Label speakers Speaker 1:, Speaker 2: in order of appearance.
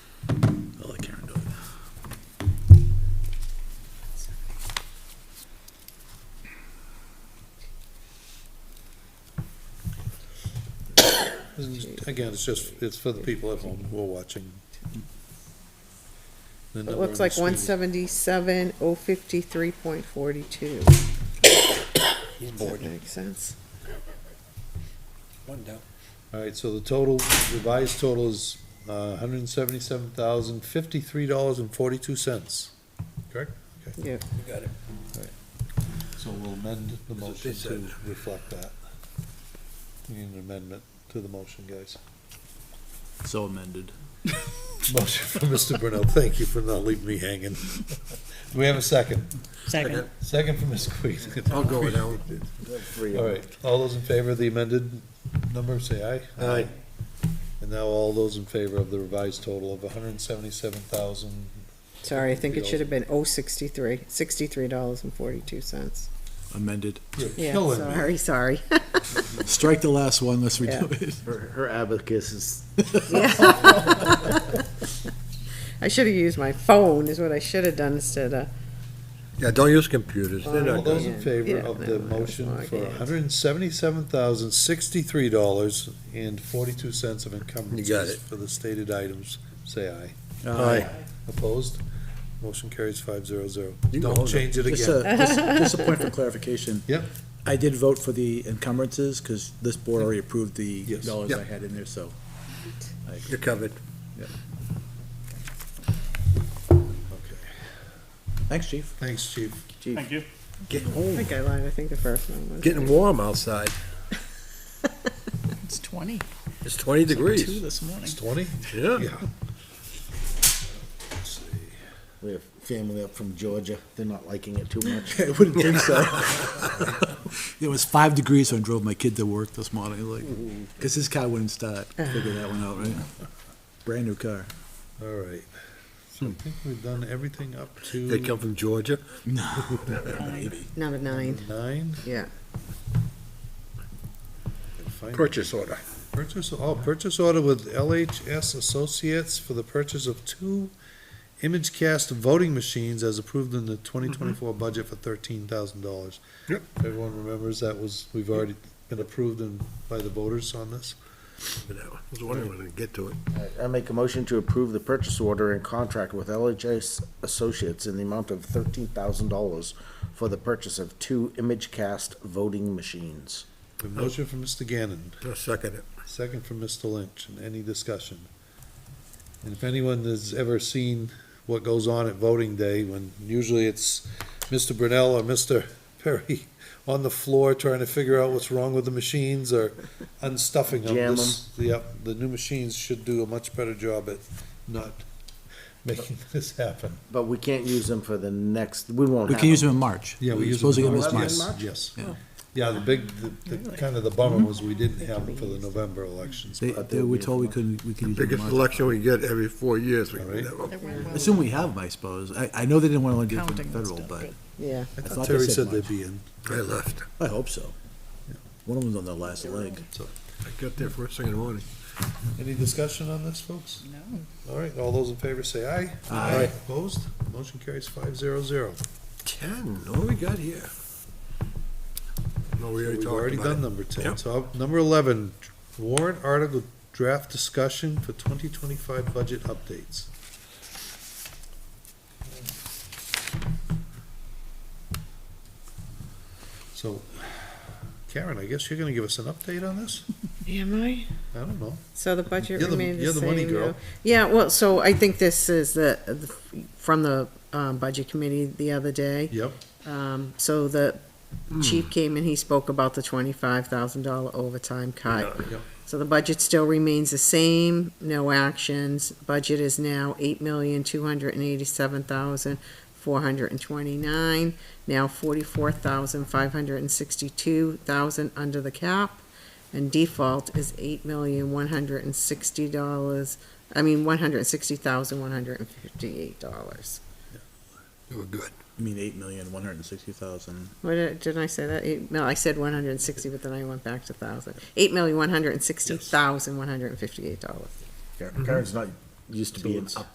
Speaker 1: And again, it's just, it's for the people at home who are watching. The
Speaker 2: It
Speaker 1: number
Speaker 2: looks
Speaker 1: on
Speaker 2: like
Speaker 1: the
Speaker 2: one
Speaker 1: screen.
Speaker 2: seventy-seven, oh fifty-three point forty-two. Does that make sense?
Speaker 3: One down.
Speaker 1: All right, so the total, revised total is uh hundred and seventy-seven thousand, fifty-three dollars and forty-two cents. Correct?
Speaker 2: Yeah,
Speaker 3: You got it.
Speaker 1: So we'll amend the
Speaker 3: what
Speaker 1: motion
Speaker 3: they
Speaker 1: to
Speaker 3: said.
Speaker 1: reflect that. We need an amendment to the motion, guys.
Speaker 4: So amended.
Speaker 1: Motion from Mr. Brunel, thank you for not leaving me hanging. Do we have a second?
Speaker 5: Second.
Speaker 1: Second from Ms. Queen.
Speaker 3: I'll go with that one.
Speaker 1: All right, all those in favor of the amended number, say aye.
Speaker 3: Aye.
Speaker 1: And now all those in favor of the revised total of hundred and seventy-seven thousand,
Speaker 2: sorry, I think it should have been oh sixty-three, sixty-three dollars and forty-two cents.
Speaker 4: Amended.
Speaker 1: you're
Speaker 2: Yeah,
Speaker 1: killing me.
Speaker 2: sorry, sorry.
Speaker 4: Strike the last one, let's redo it.
Speaker 6: Her, her abacus is
Speaker 2: I should have used my phone is what I should have done instead of,
Speaker 3: Yeah, don't use computers. They're
Speaker 1: All
Speaker 3: not
Speaker 1: those
Speaker 3: good.
Speaker 1: in favor
Speaker 2: Yeah,
Speaker 1: of
Speaker 2: no,
Speaker 1: the
Speaker 2: that was
Speaker 1: motion
Speaker 2: my
Speaker 1: for
Speaker 2: idea.
Speaker 1: hundred and seventy-seven thousand, sixty-three dollars and forty-two cents of encumbrances
Speaker 3: it.
Speaker 1: for the stated items, say aye.
Speaker 3: Aye.
Speaker 1: Opposed? Motion carries five zero zero.
Speaker 3: You can
Speaker 1: Don't
Speaker 3: hold
Speaker 1: change it
Speaker 4: Just
Speaker 1: again.
Speaker 4: a, just, just a point for clarification.
Speaker 1: Yep.
Speaker 4: I did vote for the encumbrances, because this board already approved the
Speaker 1: Yes.
Speaker 4: dollars
Speaker 3: Yeah.
Speaker 4: I had in there, so. I agree.
Speaker 3: You're covered. uh,
Speaker 4: Thanks, chief.
Speaker 1: Thanks, chief.
Speaker 6: Thank
Speaker 4: you.
Speaker 3: Getting
Speaker 2: I
Speaker 3: warm.
Speaker 2: think I lied, I think the first one was.
Speaker 3: Getting warm outside.
Speaker 5: It's 20,
Speaker 3: It's twenty
Speaker 5: 2
Speaker 3: degrees.
Speaker 5: this morning.
Speaker 1: It's twenty?
Speaker 3: Yeah.
Speaker 1: Yeah.
Speaker 6: we have family up from Georgia. They're not liking it too much.
Speaker 4: I wouldn't think so. It was five degrees when I drove my kid to work this morning, like, because his car wouldn't start. Figure that one out, right? Brand new car.
Speaker 1: All right. So I think we've done everything up to.
Speaker 3: They come from Georgia.
Speaker 2: Number nine,
Speaker 1: Nine.
Speaker 2: yeah.
Speaker 1: Fine.
Speaker 3: Purchase order.
Speaker 1: Purchase, oh, purchase order with LHS Associates for the purchase of two ImageCast voting machines as approved in the twenty twenty-four budget for thirteen thousand dollars.
Speaker 3: Mm-hmm. Yep.
Speaker 1: Everyone remembers that was, we've already been approved and by the voters on this.
Speaker 3: I was wondering when I'd get to it.
Speaker 6: I make a motion to approve the purchase order and contract with LHS Associates in the amount of thirteen thousand dollars for the purchase of two ImageCast voting machines.
Speaker 1: A motion from Mr. Gannon,
Speaker 3: I'll second it.
Speaker 1: second from Mr. Lynch, and any discussion? And if anyone has ever seen what goes on at voting day, when usually it's Mr. Brunell or Mr. Perry on the floor trying to figure out what's wrong with the machines or unstuffing them.
Speaker 6: Jam
Speaker 1: This- Yep, the new machines should do a much better job at not making this happen.
Speaker 6: But we can't use them for the next, we won't
Speaker 4: We
Speaker 6: have
Speaker 4: can use
Speaker 6: them.
Speaker 4: them in March. We're supposed to get them this March.
Speaker 1: Yes.
Speaker 4: Yeah. Mm-hmm.
Speaker 1: Yeah, the big, the, the, kind of the bummer was we didn't have them for the November elections.
Speaker 4: They,
Speaker 6: But
Speaker 4: they
Speaker 6: they'll
Speaker 4: were
Speaker 6: be-
Speaker 4: told we couldn't, we could use them in
Speaker 3: Biggest
Speaker 4: March.
Speaker 3: election we get every four years. we
Speaker 1: All right.
Speaker 3: have one.
Speaker 4: Assume we have them, I suppose. I, I know they didn't want to do it from the
Speaker 5: Counting and
Speaker 4: federal,
Speaker 5: stuff,
Speaker 4: but
Speaker 2: Yeah,
Speaker 1: I
Speaker 4: thought
Speaker 1: thought
Speaker 4: they
Speaker 1: Terry
Speaker 4: said
Speaker 1: said they'd
Speaker 4: March.
Speaker 1: be in,
Speaker 3: I left.
Speaker 4: I hope so. One of them's on their last leg.
Speaker 1: so.
Speaker 3: I got there first thing in the morning.
Speaker 1: Any discussion on this, folks?
Speaker 5: No.
Speaker 1: All right, all those in favor say aye.
Speaker 4: Aye.
Speaker 1: Opposed? Motion carries five zero zero.
Speaker 3: Ten, what do we got here? No, we already
Speaker 1: We've
Speaker 3: talked
Speaker 1: already
Speaker 3: about
Speaker 1: done
Speaker 3: it.
Speaker 1: number ten.
Speaker 3: Yep.
Speaker 1: So up- number eleven, warrant article draft discussion for twenty twenty-five budget updates. So Karen, I guess you're gonna give us an update on this?
Speaker 2: am I?
Speaker 1: I don't know.
Speaker 2: So the budget
Speaker 1: You're the-
Speaker 2: remained the
Speaker 1: you're the
Speaker 2: same.
Speaker 1: money
Speaker 2: no?
Speaker 1: girl.
Speaker 2: Yeah, well, so I think this is the, the- from the, um, budget committee the other day.
Speaker 1: Yep.
Speaker 2: Um, so the
Speaker 1: Hmm.
Speaker 2: chief came and he spoke about the twenty-five thousand dollar overtime cut.
Speaker 1: Yeah.
Speaker 2: So the budget still remains the same, no actions. Budget is now eight million, two hundred and eighty-seven thousand, four hundred and twenty-nine. Now forty-four thousand, five hundred and sixty-two thousand under the cap. And default is eight million, one hundred and sixty dollars, I mean, one hundred and sixty thousand, one hundred and fifty-eight dollars.
Speaker 3: We We're good.
Speaker 4: I mean, eight million, one hundred and sixty thousand.
Speaker 2: What did, didn't I say that? Eight, no, I said one hundred and sixty, but then I went back to thousand. Eight million, one hundred and sixty thousand, one hundred and fifty-eight dollars.
Speaker 6: Karen's not used to being up